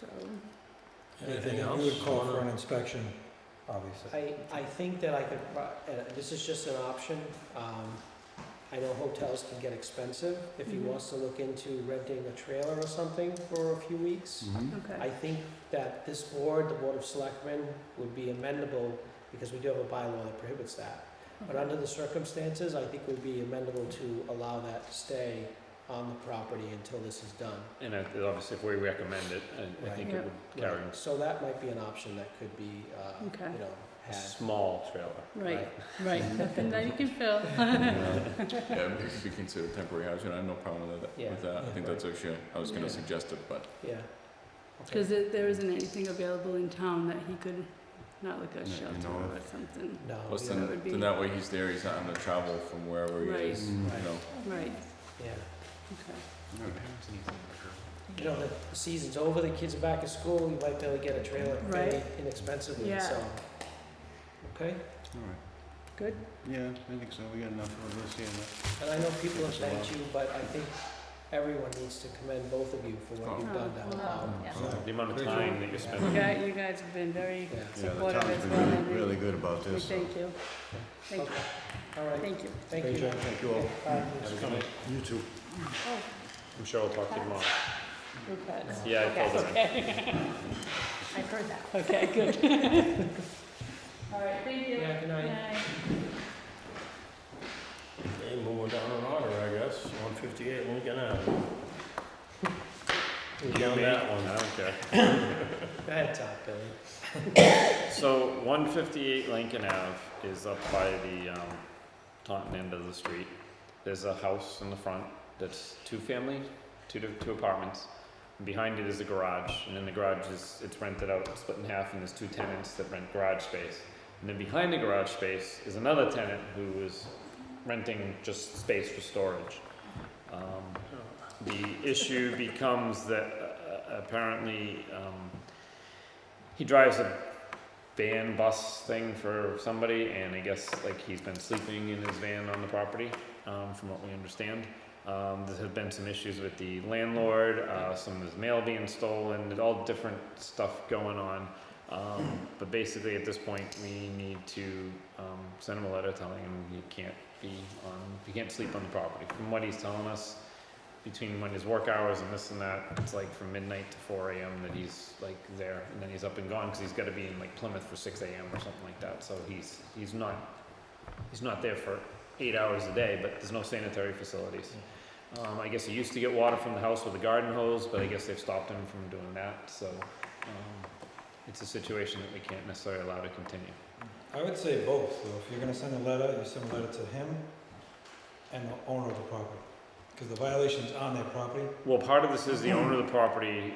so. Anything And else? You would call for an inspection, obviously. I, I think that I could, pro- uh, this is just an option. Um, I know hotels can get expensive. If he Mhm. wants to look into renting a trailer or something for a few weeks, I Mm-hmm. Okay, think that this board, the Board of Selectmen, would be amendable because we do have a bylaw that prohibits that. But under the circumstances, I think we'd be amendable to allow that to stay on the property until this is done. And I- obviously, if we recommend it, I, I Right. think Yeah. it would carry Right, So that might be an option that could be, uh, Okay. you know, a had. small trailer. right, right, nothing that you can fill. Yeah, it could be considered temporary housing, I have no problem with that, with Yeah. that, I think that's actually, I was Yeah. gonna suggest it, but Yeah. Okay. Because there isn't anything available in town that he could, not like No, a you shelter know. or something, No. plus Oh, yeah, that then, would be- then that way he's there, he's not having to travel from wherever he Right. is, you Right. know. right, Yeah. okay. Mm. You know, the the season's over, the kids are back at school, you might be able to get a trailer very Right. inexpensively, Yeah. so. Okay, Good. Yeah, I think so, we got enough of this here. and I know people have thanked you, but I think everyone needs to commend both of you for what Oh. you've done down the hall. Yeah. So- The amount of Great time that Yeah. you're You spending. guys, you guys have been very Yeah, supportive as well, and we- good about we thank you. Thank you, all right, thank you. thank you. Thank you all. Bye. You too. Oh, I'm sure I'll talk to you tomorrow. your pets. Yeah, I told her. I've heard that. Okay, good. All right, thank you. Yeah, good night. Okay, moving down in order, I guess, one fifty-eight Lincoln Ave. You down that one, I don't care. Go ahead, Todd, Billy. So one fifty-eight Lincoln Ave is up by the, um, Taunton end of the street. There's a house in the front that's two-family, two, to- two apartments. Behind it is a garage, and in the garage is, it's rented out, split in half, and there's two tenants that rent garage space. And then behind the garage space is another tenant who is renting just space for storage. Um, the issue becomes that uh, apparently, um, he drives a van bus thing for somebody, and I guess like he's been sleeping in his van on the property, um, from what we understand. Um, there have been some issues with the landlord, uh, some of his mail being stolen, and all different stuff going on. Um, but basically, at this point, we need to um, send him a letter telling him he can't be on, he can't sleep on the property. From what he's telling us, between when his work hours and this and that, it's like from midnight to four AM that he's like there, and then he's up and gone, cause he's gotta be in like Plymouth for six AM or something like that, so he's, he's not, he's not there for eight hours a day, but there's no sanitary facilities. Um, I guess he used to get water from the house with a garden hose, but I guess they've stopped him from doing that, so, um, it's a situation that we can't necessarily allow to continue. I would say both, though. If you're gonna send a letter, you send a letter to him and the owner of the property. Because the violation's on their property. Well, part of this is the owner of the property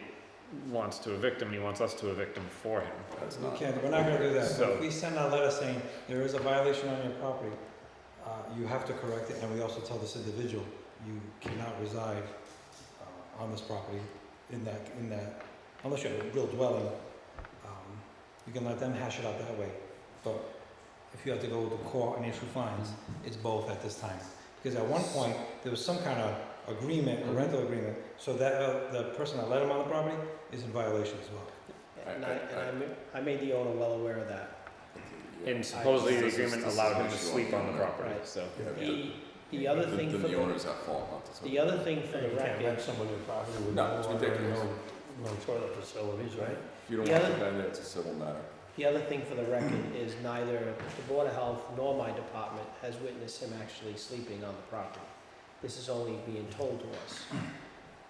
wants to evict him, he wants us to evict him for him. That's We not, can't, we're not gonna do that. But So- if we send out a letter saying there is a violation on your property, uh, you have to correct it, and we also tell this individual, you cannot reside, uh, on this property in that, in that, unless you have a real dwelling. Um, You can let them hash it out that way, but if you have to go to court and issue fines, it's both at this time. Because at one point, there was some kind of agreement, a rental agreement, so that, uh, the person that let him on the property is in violation as well. I- And I, and I- I ma- I made the owner well aware of that. And supposedly the This is- agreement this is allowed an him to issue sleep on the owner. property, Right. so. Yeah, but The, the then- other thing for Then the the, owner's at fault, not the seller. the other thing for the record, somebody a property with No, it's ridiculous. no toilet facilities, right? If you don't the want other- the guy there, it's a civil matter. The other thing for the record is neither the Board of Health nor my department has witnessed him actually sleeping on the property. This is only being told to us.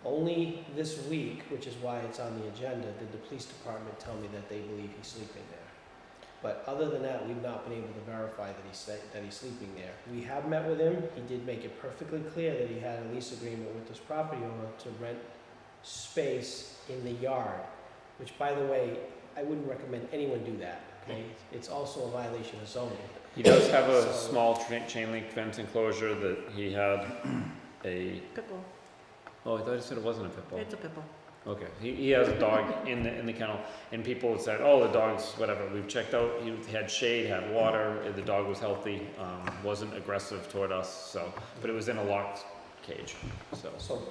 Only this week, which is why it's on the agenda, did the police department tell me that they believe he's sleeping there. But other than that, we've not been able to verify that he's, sle- that he's sleeping there. We have met with him, he did make it perfectly clear that he had a lease agreement with this property owner to rent space in the yard, which by the way, I wouldn't recommend anyone do that, okay? It's also a violation of zoning. Mm-hmm. He does have a So- small tra- chain link fence enclosure that he had a, Pitbull, oh, I thought you said it wasn't a pit bull. it's a pitbull. Okay, he, he has a dog in the, in the kennel, and people had said, oh, the dog's whatever, we've checked out, he had shade, had water, uh, the dog was healthy, um, wasn't aggressive toward us, so, but it was in a locked cage, so. So